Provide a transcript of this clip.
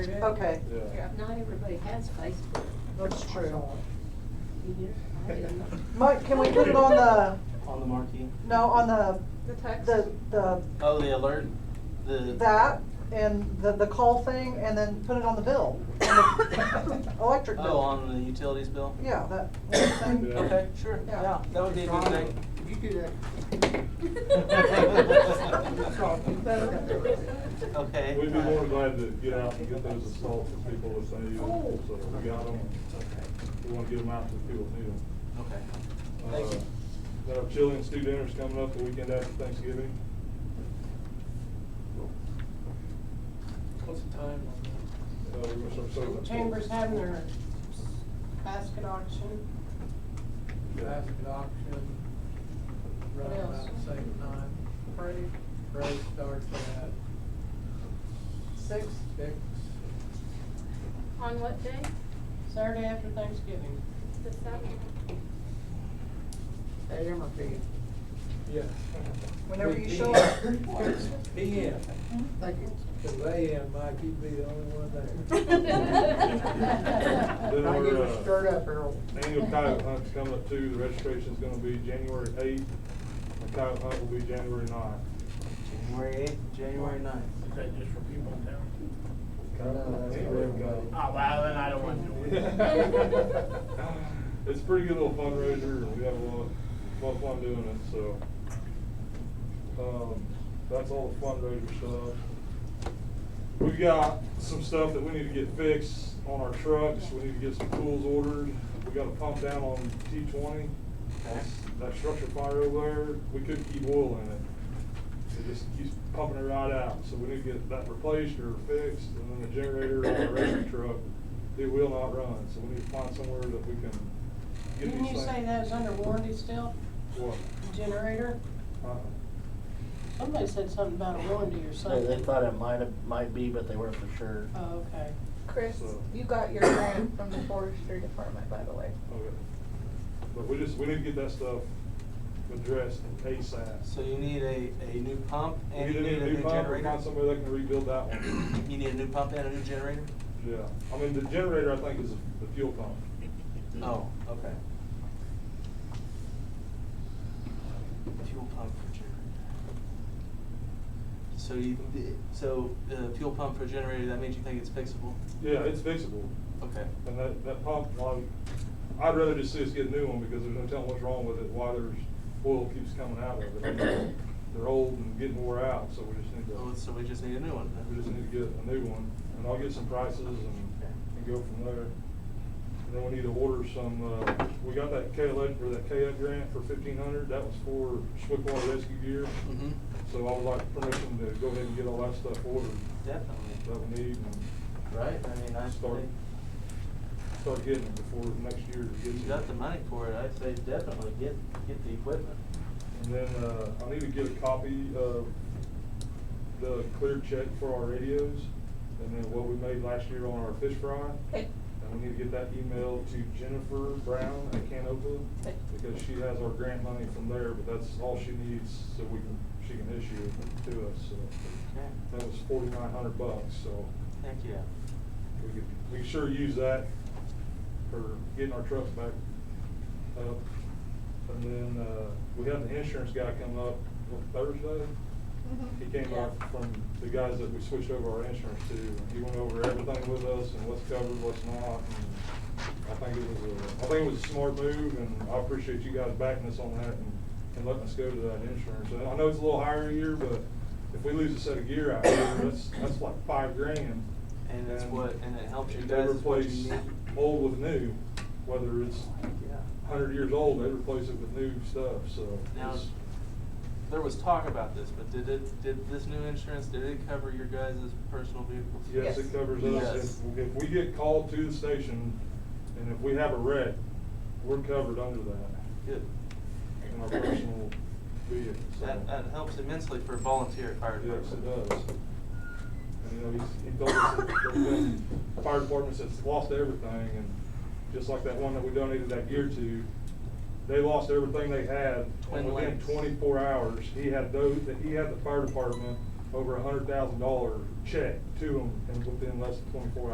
Okay, Yeah. Not everybody has Facebook. that's true. You do? I didn't know. Mike, can we put it on the, On the marquee? no, on the, The text? the, the, Oh, the alert, the. that and the, the call thing and then put it on the bill? on the Electric bill? Oh, on the utilities bill? Yeah, that whole thing. Okay, sure, Yeah. yeah, that would be a good thing. You do that. Okay. We'd be more than glad to get out and get those assaults that people are saying, Oh. so we got them. We wanna get them out to the people that need them. Okay. Thank Uh, you. Got our chili and stew dinners coming up the weekend after Thanksgiving. What's the time on that? Uh, we're gonna start serving at four. Chambers having their basket auction. Yeah. Basket auction, right What else? about the same time. Parade. Parade starts at Six, six. On what day? Saturday after Thanksgiving. The seventh? They ever be. Yeah. whenever you Big show up. PM, Thank you. cause AM, Mike, you'd be the only one Now Then you we're, were uh, stirred up, Harold. Annual coyote hunt's coming up too, the registration's gonna be January eighth, the coyote hunt will be January ninth. January eighth, January ninth. Is that just for people in town? Coyote hunt. Oh, well, then I don't want to do it. It's a pretty good little fundraiser, and we have a lot, a lot of fun doing it, so. Um, that's all the fundraiser stuff. We've got some stuff that we need to get fixed on our trucks, we need to get some tools ordered, we got a pump down on T twenty. That structure fire over there, we couldn't keep oil in it, it just keeps pumping it right out, so we need to get that replaced or fixed, and then the generator on the rescue truck, it will not run, so we need to find somewhere that we can get these Didn't you things. say that was under warranty still, What? the generator? Uh, Somebody said something about a warranty or They, something. they thought it might have, might be, but they weren't for sure. Oh, okay. Chris, you got your grant from the forestry department, by the way. Okay. But we just, we need to get that stuff addressed ASAP. So you need a, a new pump We and need you to need get a new pump, we generator? Find somebody that can rebuild that one. You need a new pump and a new generator? Yeah, I mean, the generator, I think, is the fuel pump. Oh, okay. Fuel pump for generator. So you, so the fuel pump for generator, that means you think it's fixable? Yeah, it's fixable, Okay. and that, that pump, um, I'd rather just see us get a new one, because there's no telling what's wrong with it, why there's, oil keeps coming out of it. They're old and getting wore out, so we just need Oh, to, so we just need a new one then? we just need to get a new one, and I'll get some prices and, and go from there. And then we need to order some, uh, we got that KLA, or that KF grant for fifteen hundred, that was for swiftwater rescue gear. Mhm. So I would like permission to go ahead and get all that stuff ordered that Definitely. we need and Right, I mean, I Start. think, start getting it before next year if gets you here. got the money for it, I'd say definitely get, get the equipment. And then, uh, I need to get a copy of the clear check for our radios, and then what we made last year on our fish fry. Okay. And we need to get that email to Jennifer Brown at Canova, Okay. because she has our grant money from there, but that's all she needs, so we can, she can issue it to us, so. Okay, That was forty-nine hundred bucks, so thank you. we could, we could sure use that for getting our trucks back up. And then, uh, we had the insurance guy come up on Thursday. He came up from the guys that we switched over our insurance to. He went over everything with us and what's covered, what's not. and I think it was a, I think it was a smart move and I appreciate you guys backing us on that and, and letting us go to that insurance. And I know it's a little higher a year, but if we lose a set of gear out here, that's, that's like five grand. And it's what, and it helps you And They guys, it's what replace you need. old with new, whether it's Yeah. hundred years old, they replace it with new stuff, so. Now, it's- there was talk about this, but did it, did this new insurance, did it cover your guys' personal vehicles? Yes, Yes. it covers us. Yes. If, if we get called to the station and if we have a wreck, we're covered under that Good. in our personal vehicle. so. That, that helps immensely for volunteer fire Yes, department. it does. And, you know, he's, he told us that there's been fire departments that's lost everything and just like that one that we donated that gear to, they lost everything they had. Twin And within lakes. twenty-four hours, he had those, that he had the fire department over a hundred thousand dollar check to to them and within less than twenty-four